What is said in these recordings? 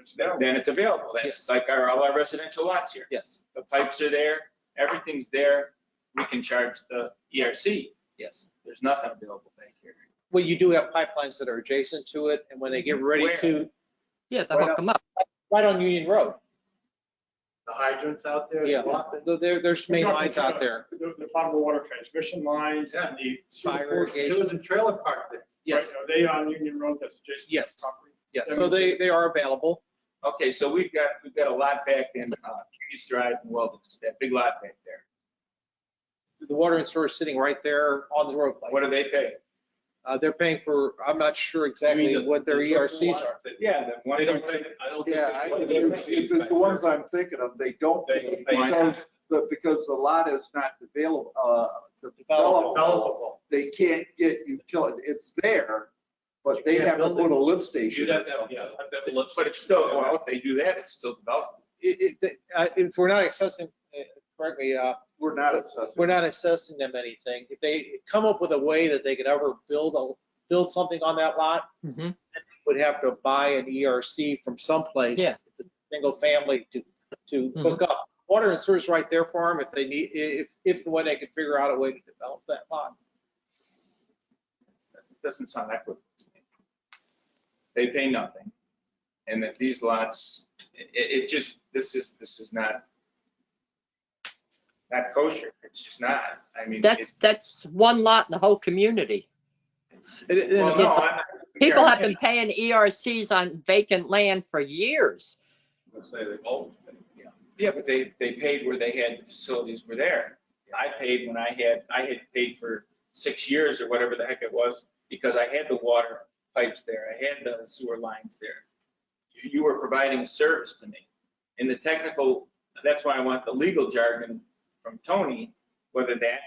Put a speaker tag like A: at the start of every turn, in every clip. A: it's there.
B: then it's available. That's
C: Yes.
B: like our, all our residential lots here.
C: Yes,
B: The pipes are there, everything's there. We can charge the ERC.
C: yes.
B: There's nothing available back here.
C: Well, you do have pipelines that are adjacent to it, and when they get ready
B: Where?
C: to,
D: Yeah, to
C: Why
D: hook
C: not?
D: them up.
C: right on Union Road.
A: The hydrants out there.
C: Yeah, there- there, there's main lines out there.
E: The, the potable water transmission lines and the. sewer
C: Fire
E: portion.
C: irrigation.
A: There was a trailer park there.
C: Yes,
E: Right, Are they on Union Road that's adjacent to
C: Yes.
E: the property?
C: yes. So they, they are available.
B: Okay, so we've got, we've got a lot back in, uh, Curious Drive and Wilderness, that big lot back there.
C: The water and sewer is sitting right there on the road.
B: What do they pay?
C: Uh, they're paying for, I'm not sure exactly
A: You mean the-
C: what their
A: the truck
C: ERCs
A: lot
C: E are.
A: that-
B: Yeah, the one.
A: They don't take, I don't think.
F: Yeah,
A: they-
F: I- if if it's the ones I'm thinking of, they don't
A: They-
F: pay
A: they-
F: because the, because the lot is not available, uh, developable.
A: Developable.
F: They can't get utility, it's there, but they have to put a lift
A: You'd
F: station.
A: have to have, yeah, have to have a lift
B: But it's still,
A: station.
B: well, if they do that, it's still developed.
C: It- it- uh, If we're not accessing, uh, correct me, uh,
F: We're not assessing.
C: we're not assessing them anything. If they come up with a way that they could ever build a, build something on that lot,
D: Mhm.
C: would have to buy an ERC from someplace.
D: Yeah.
C: Single family to, to hook up. Water and sewer's right there for them if they need, i- if, if and when they can figure out a way to develop that lot.
B: It Doesn't sound equitable to me. They pay nothing. And that these lots, it, it just, this is, this is not, not kosher. It's just not. I mean.
D: That's,
B: it-
D: that's one lot in the whole community.
C: And- and-
B: Well, no, I'm not
D: People have
B: comparing
D: been paying ERCs on vacant land for years.
A: Let's say they both.
B: it. Yeah, but they, they paid where they had, the facilities were there. I paid when I had, I had paid for six years or whatever the heck it was, because I had the water pipes there. I had the sewer lines there. You, you were providing a service to me. In the technical, that's why I want the legal jargon from Tony, whether that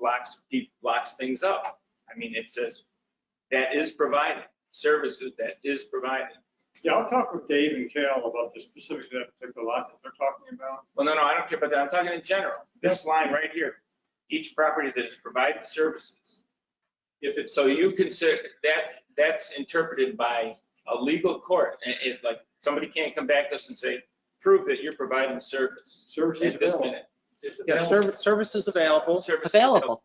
B: locks, pe- locks things up. I mean, it says, that is provided, services that is provided.
E: Yeah, I'll talk with Dave and Cal about the specifics of that particular lot that they're talking about.
B: Well, no, no, I don't care about that. I'm talking in general. This line right here, each property that is provided services. If it, so you consider, that, that's interpreted by a legal court. And it, like, somebody can't come back to us and say, prove that you're providing service.
A: Services
B: At this
A: available.
B: minute.
A: It's
C: Yeah,
A: available.
C: service, service is available.
B: Service is
D: Available.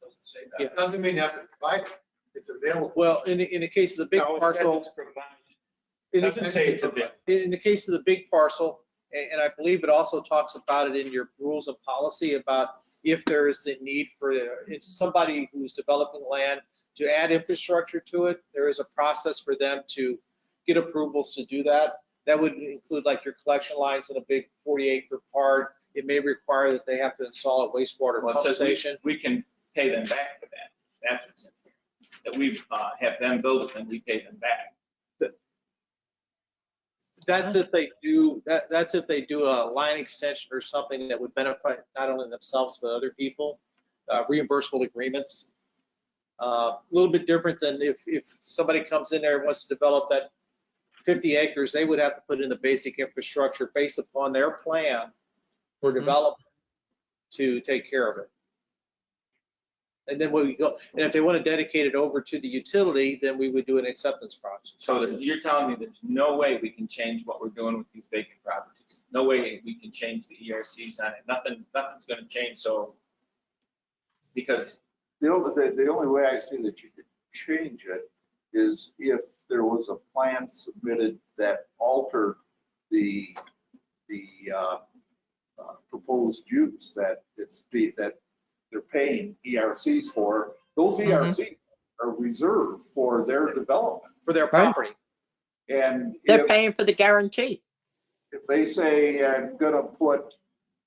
A: Doesn't say that.
F: It doesn't mean you have to provide it, it's available.
C: Well, in, the- in the case of the big
B: No, it says
C: parcel,
B: it's provided.
C: in the-
B: Doesn't say it's available.
C: in the case of the big parcel, a- and I believe it also talks about it in your rules of policy about if there is the need for, if somebody who's developing land to add infrastructure to it, there is a process for them to get approvals to do that. That would include like your collection lines in a big 40 acre part. It may require that they have to install a wastewater
B: Well, it
C: pump
B: says we-
C: station.
B: We can pay them back for that. That's what's in here. That we uh, have them build it and we pay them back.
C: That's if they do, that, that's if they do a line extension or something that would benefit not only themselves, but other people, uh, reimbursable agreements. Uh, A little bit different than if, if somebody comes in there and wants to develop that 50 acres, they would have to put in the basic infrastructure based upon their plan for
D: Mhm.
C: development to take care of it. And then when we go, and if they want to dedicate it over to the utility, then we would do an acceptance process.
B: So that- you're telling me there's no way we can change what we're doing with these vacant properties? No way we can change the E ERCs on it? Nothing, nothing's gonna change, so. Because,
F: The only, the, the only way I see that you could change it is if there was a plan submitted that altered the, the, uh, uh, proposed use that it's be, that they're paying ERCs for. Those
D: Mhm.
F: ERCs are reserved for their development.
C: For their
D: Right.
C: property.
F: And
D: They're
F: if-
D: paying for the guarantee.
F: if they say, I'm gonna put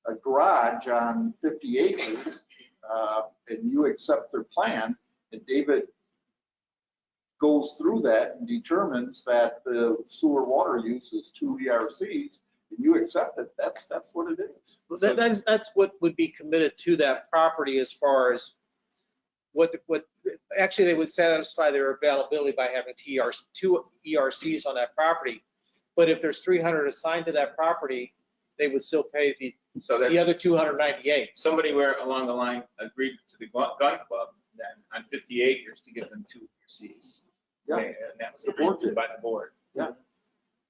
F: a garage on 50 acres, uh, and you accept their plan, and David goes through that and determines that the sewer water use is two ERCs, and you accept it, that's, that's what it is.
C: Well, that- That's, that's what would be committed to that property as far as what, the- what, actually, they would satisfy their availability by having TRs, two ERCs on that property. But if there's 300 assigned to that property, they would still pay the,
B: so
C: the
B: that,
C: other 298.
B: somebody where along the line agreed to the gun gun club then on fifty acres to give them two E ERCs.
F: Yeah.
B: And that was approved by the board.
F: Yeah.